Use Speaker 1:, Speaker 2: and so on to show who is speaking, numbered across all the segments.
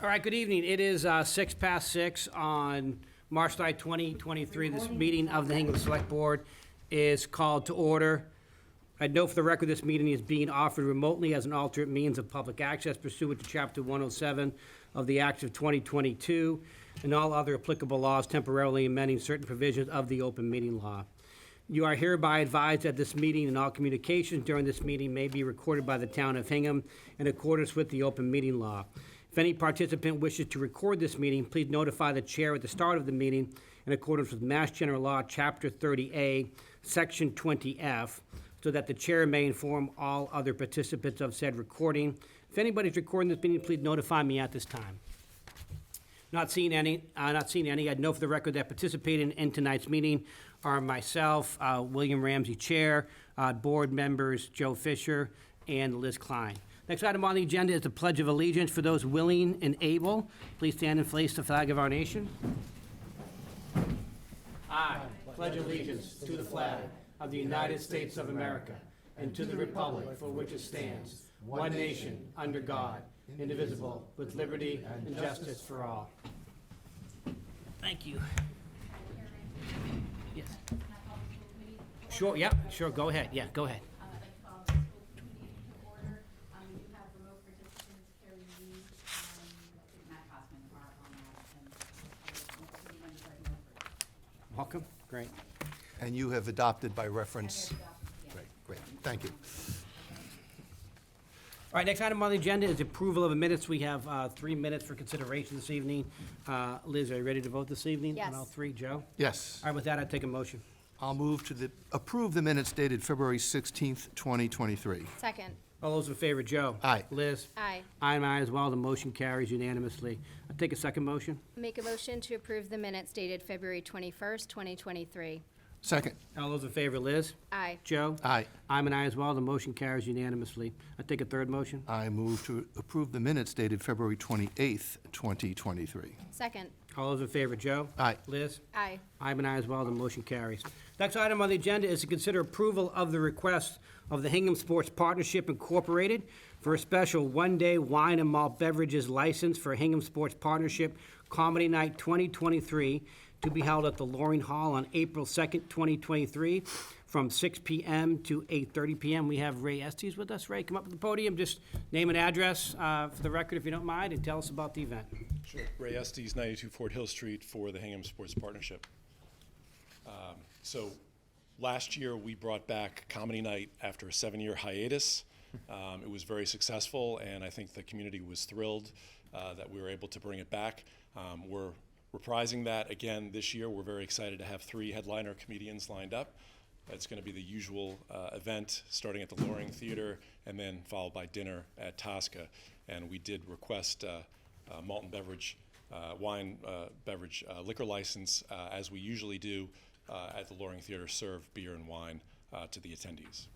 Speaker 1: All right, good evening. It is uh, six past six on March 9, 2023. This meeting of the Hingham Select Board is called to order. I note for the record, this meeting is being offered remotely as an alternate means of public access pursuant to Chapter 107 of the Acts of 2022 and all other applicable laws temporarily amending certain provisions of the open meeting law. You are hereby advised that this meeting and all communications during this meeting may be recorded by the town of Hingham in accordance with the open meeting law. If any participant wishes to record this meeting, please notify the chair at the start of the meeting in accordance with Mass General Law, Chapter 30A, Section 20F, so that the chair may inform all other participants of said recording. If anybody's recording this meeting, please notify me at this time. Not seeing any, uh, not seeing any. I'd know for the record that participating in tonight's meeting are myself, uh, William Ramsey Chair, uh, board members Joe Fisher and Liz Klein. Next item on the agenda is the Pledge of Allegiance. For those willing and able, please stand and place the flag of our nation. I pledge allegiance to the flag of the United States of America and to the republic for which it stands, one nation, under God, indivisible, with liberty and justice for all. Thank you. Yes. Sure, yeah, sure, go ahead, yeah, go ahead.
Speaker 2: Um, I'd like to call the school committee to order. Um, We do have remote participants, Carrie Lee, um, and Matt Hoffman are on that. And uh, the committee members are remote.
Speaker 1: Welcome, great.
Speaker 3: And you have adopted by reference?
Speaker 2: Yeah.
Speaker 3: Great, great, thank you.
Speaker 1: All right, next item on the agenda is approval of the minutes. We have uh, three minutes for consideration this evening. Uh, Liz, are you ready to vote this evening? On all
Speaker 2: Yes.
Speaker 1: three, Joe?
Speaker 3: Yes,
Speaker 1: All right, with that, I take a motion.
Speaker 3: I'll move to the, approve the minutes dated February 16th, 2023.
Speaker 4: Second,
Speaker 1: All those in favor, Joe?
Speaker 3: Aye.
Speaker 1: Liz?
Speaker 4: aye.
Speaker 1: I'm aye as well, the motion carries unanimously. I take a second motion.
Speaker 4: Make a motion to approve the minutes dated February 21st, 2023.
Speaker 3: Second,
Speaker 1: All those in favor, Liz?
Speaker 4: Aye.
Speaker 1: Joe?
Speaker 3: aye.
Speaker 1: I'm an aye as well, the motion carries unanimously. I take a third motion.
Speaker 3: I move to approve the minutes dated February 28th, 2023.
Speaker 4: Second,
Speaker 1: All those in favor, Joe?
Speaker 3: Aye.
Speaker 1: Liz?
Speaker 4: aye.
Speaker 1: I'm an aye as well, the motion carries. Next item on the agenda is to consider approval of the request of the Hingham Sports Partnership Incorporated for a special one-day wine and malt beverages license for Hingham Sports Partnership Comedy Night 2023 to be held at the Loring Hall on April 2nd, 2023, from 6 PM to 8:30 PM. We have Ray Estes with us. Ray, come up to the podium, just name and address uh, for the record, if you don't mind, and tell us about the event.
Speaker 5: Sure. Ray Estes, 92 Fort Hill Street for the Hingham Sports Partnership. Um, So last year, we brought back Comedy Night after a seven-year hiatus. Um, It was very successful, and I think the community was thrilled uh, that we were able to bring it back. Um, We're reprising that again this year. We're very excited to have three headliner comedians lined up. It's going to be the usual uh, event, starting at the Loring Theater and then followed by dinner at Tosca. And we did request uh, uh, malt and beverage, uh, wine, uh, beverage, uh, liquor license, uh, as we usually do uh, at the Loring Theater, serve beer and wine uh, to the attendees.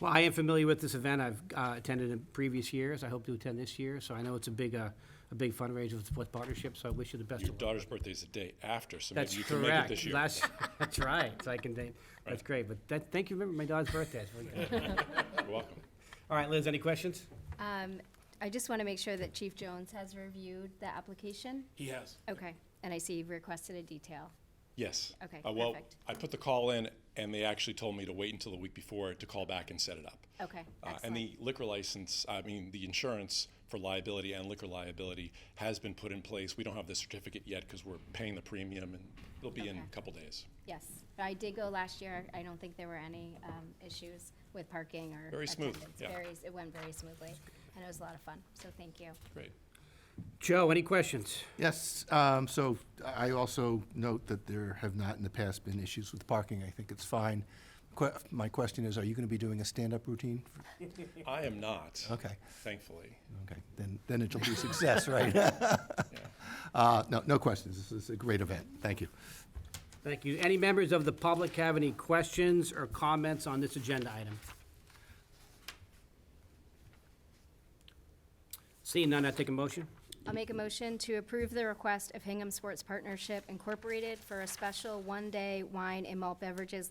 Speaker 1: Well, I am familiar with this event. I've uh, attended in previous years. I hope to attend this year, so I know it's a big, uh, a big fundraiser with Sports Partnership, so I wish you the best
Speaker 5: Your
Speaker 1: of luck.
Speaker 5: daughter's birthday is the day after, so
Speaker 1: That's
Speaker 5: maybe you can make it
Speaker 1: correct.
Speaker 5: this year.
Speaker 1: That's, that's right. So I can, date- that's great, but that, thank you, remember my daughter's birthday. It's really good.
Speaker 5: You're welcome.
Speaker 1: All right, Liz, any questions?
Speaker 4: Um, I just want to make sure that Chief Jones has reviewed the application.
Speaker 5: He has.
Speaker 4: Okay, and I see you've requested a detail.
Speaker 5: Yes.
Speaker 4: Okay,
Speaker 5: Uh, Well,
Speaker 4: perfect.
Speaker 5: I put the call in, and they actually told me to wait until the week before to call back and set it up.
Speaker 4: Okay,
Speaker 5: Uh, And
Speaker 4: excellent.
Speaker 5: the liquor license, I mean, the insurance for liability and liquor liability has been put in place. We don't have the certificate yet because we're paying the premium, and it'll be in a
Speaker 4: Okay.
Speaker 5: couple days.
Speaker 4: Yes, I did go last year. I don't think there were any um, issues with parking or.
Speaker 5: Very smooth,
Speaker 4: attendance.
Speaker 5: yeah.
Speaker 4: Very- It went very smoothly, and it was a lot of fun, so thank you.
Speaker 5: Great.
Speaker 1: Joe, any questions?
Speaker 3: Yes, um, so I also note that there have not in the past been issues with parking. I think it's fine. Que- My question is, are you going to be doing a stand-up routine?
Speaker 5: I am not.
Speaker 3: Okay.
Speaker 5: Thankfully.
Speaker 3: Okay, then, then it'll be a success, right? Uh, No, no questions. This is a great event. Thank you.
Speaker 1: Thank you. Any members of the public have any questions or comments on this agenda item? Seeing none, I take a motion.
Speaker 4: I'll make a motion to approve the request of Hingham Sports Partnership Incorporated for a special one-day wine and malt beverages